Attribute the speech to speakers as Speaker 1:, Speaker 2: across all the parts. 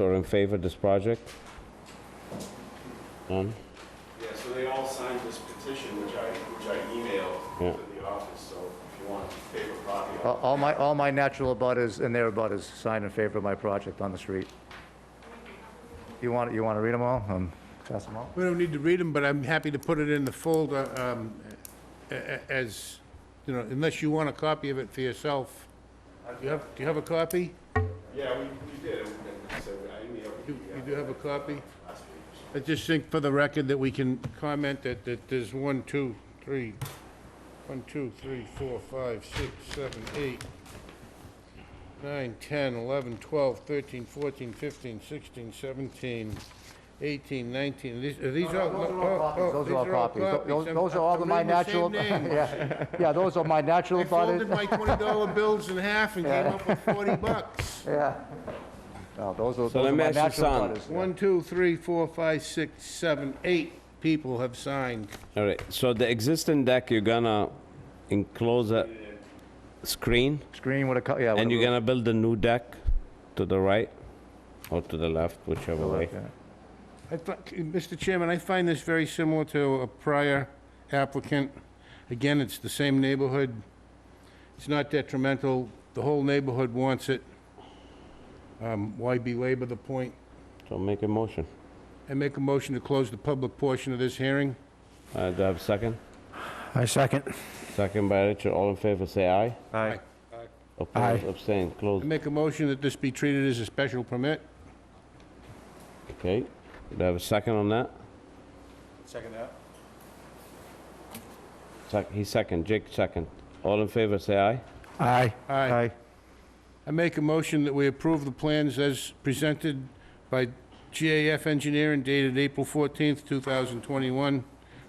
Speaker 1: who are in favor of this project? None?
Speaker 2: Yeah, so they all signed this petition, which I, which I
Speaker 1: Yeah.
Speaker 2: emailed to the office, so if you want a paper copy.
Speaker 3: All- All my, all my natural abutters and their abutters signed in favor of my project on the street. You want, you want to read them all? Um, pass them all?
Speaker 4: We don't need to read them, but I'm happy to put it in the folder um, a- a- as, you know, unless you want a copy of it for yourself. Do you have, do you have a copy?
Speaker 2: Yeah, we, we did, and so I emailed
Speaker 4: You you do have a copy?
Speaker 2: last week.
Speaker 4: I just think for the record that we can comment that, that there's one, two, three, one, two, three, four, five, six, seven, eight, nine, ten, eleven, twelve, thirteen, fourteen, fifteen, sixteen, seventeen, eighteen, nineteen. These, are these all?
Speaker 3: Those are all copies,
Speaker 4: oh,
Speaker 3: those are all copies. Tho- Those
Speaker 4: I'm-
Speaker 3: those are all
Speaker 4: I'm
Speaker 3: of my
Speaker 4: reading the same
Speaker 3: natural,
Speaker 4: names.
Speaker 3: yeah, yeah, those are my natural
Speaker 4: I folded
Speaker 3: abutters.
Speaker 4: my twenty-dollar bills in half and came up with forty bucks.
Speaker 3: Yeah. No, those are, those
Speaker 1: let
Speaker 3: are
Speaker 1: me
Speaker 3: my
Speaker 1: ask you
Speaker 3: natural
Speaker 1: something.
Speaker 3: abutters.
Speaker 4: One, two, three, four, five, six, seven, eight people have signed.
Speaker 1: All right, so the existing deck, you're gonna enclose a screen,
Speaker 3: Screen with a, co- yeah. with
Speaker 1: and
Speaker 3: a
Speaker 1: you're
Speaker 3: roof.
Speaker 1: gonna build a new deck to the right, or to the left, whichever way.
Speaker 3: Yeah.
Speaker 4: I fi- Mr. Chairman, I find this very similar to a prior applicant. Again, it's the same neighborhood. It's not detrimental. The whole neighborhood wants it. Um, Why belabor the point?
Speaker 1: So make a motion.
Speaker 4: I make a motion to close the public portion of this hearing.
Speaker 1: Uh, Do I have a second?
Speaker 5: I second.
Speaker 1: Second by Richard, all in favor, say aye.
Speaker 3: Aye.
Speaker 1: Opposed, abstain,
Speaker 4: I
Speaker 1: close.
Speaker 4: make a motion that this be treated as a special permit.
Speaker 1: Okay, do I have a second on that?
Speaker 2: Second that?
Speaker 1: Sec- He second, Jake second. All in favor, say aye.
Speaker 5: Aye.
Speaker 4: Aye.
Speaker 3: Aye.
Speaker 4: I make a motion that we approve the plans as presented by GAF Engineering dated April 14th, 2021,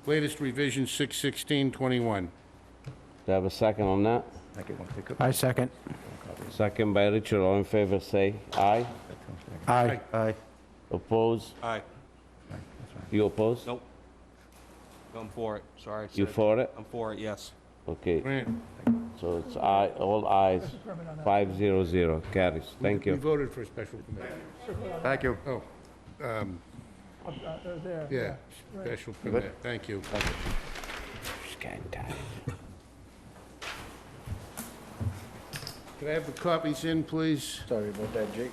Speaker 4: latest revision 6/16/21.
Speaker 1: Do I have a second on that?
Speaker 3: I get one pick up.
Speaker 5: I second.
Speaker 1: Second by Richard, all in favor, say aye.
Speaker 5: Aye.
Speaker 3: Aye.
Speaker 1: Opposed?
Speaker 6: Aye.
Speaker 1: You opposed?
Speaker 6: Nope. I'm for it, sorry.
Speaker 1: You
Speaker 6: sir.
Speaker 1: for it?
Speaker 6: I'm for it, yes.
Speaker 1: Okay,
Speaker 4: Grant,
Speaker 1: so it's aye, all ayes, five zero zero, carries. Thank
Speaker 4: we
Speaker 1: you.
Speaker 4: voted for a special permit.
Speaker 3: Thank you.
Speaker 4: Oh, um, yeah, special permit, thank you. Can I have the copies in, please?
Speaker 5: Sorry about that, Jake.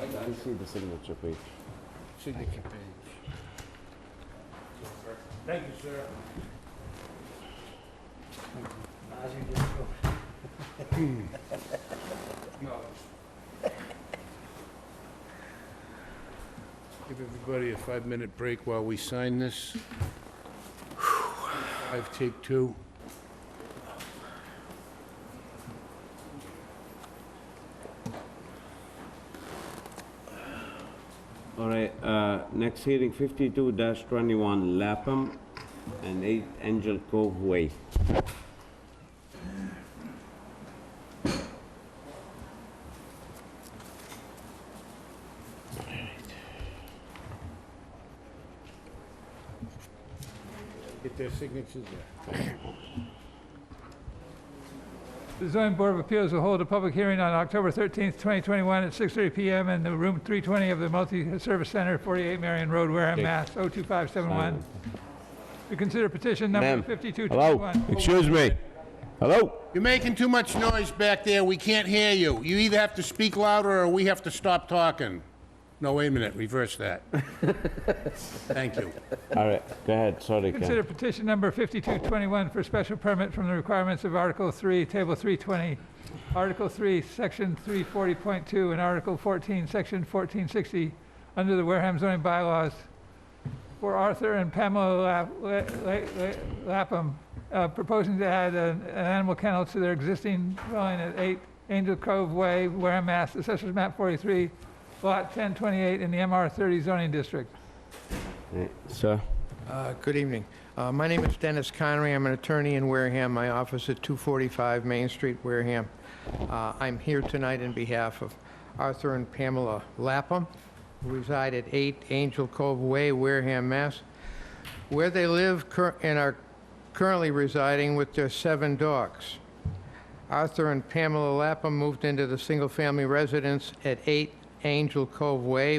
Speaker 1: You see the signature page.
Speaker 4: Signature page. Thank you, sir. Give everybody a five-minute break while we sign this. Five, take two.
Speaker 1: All right, uh, next hearing, fifty-two twenty-one, Lapham and eight Angel Cove Way.
Speaker 4: Get their signatures there.
Speaker 7: The zoning board of appeals will hold a public hearing on October 13th, 2021 at 6:30 PM in the room 320 of the Multi-Service Center, 48 Marion Road, Wareham, Mass. 02571. To consider petition number
Speaker 1: Ma'am.
Speaker 7: 5221.
Speaker 1: excuse me. Hello?
Speaker 4: You're making too much noise back there, we can't hear you. You either have to speak louder or we have to stop talking. No, wait a minute, reverse that. Thank you.
Speaker 1: All right, go ahead, sorry,
Speaker 7: Consider
Speaker 1: Ken.
Speaker 7: petition number 5221 for special permit from the requirements of Article 3, Table 320, Article 3, Section 340.2, and Article 14, Section 1460, under the Wareham zoning bylaws for Arthur and Pamela Lap- La- La- La- Lapham, uh, proposing to add an an animal kennel to their existing dwelling at 8 Angel Cove Way, Wareham, Mass., Assessors Map 43, Lot 1028, in the MR 30 zoning district.
Speaker 1: Right, Sir,
Speaker 5: Uh, Good evening. Uh, My name is Dennis Connery. I'm an attorney in Wareham. My office at 245 Main Street, Wareham. Uh, I'm here tonight in behalf of Arthur and Pamela Lapham, who reside at 8 Angel Cove Way, Wareham, Mass., where they live cur- and are currently residing with their seven dogs. Arthur and Pamela Lapham moved into the single-family residence at 8 Angel Cove Way,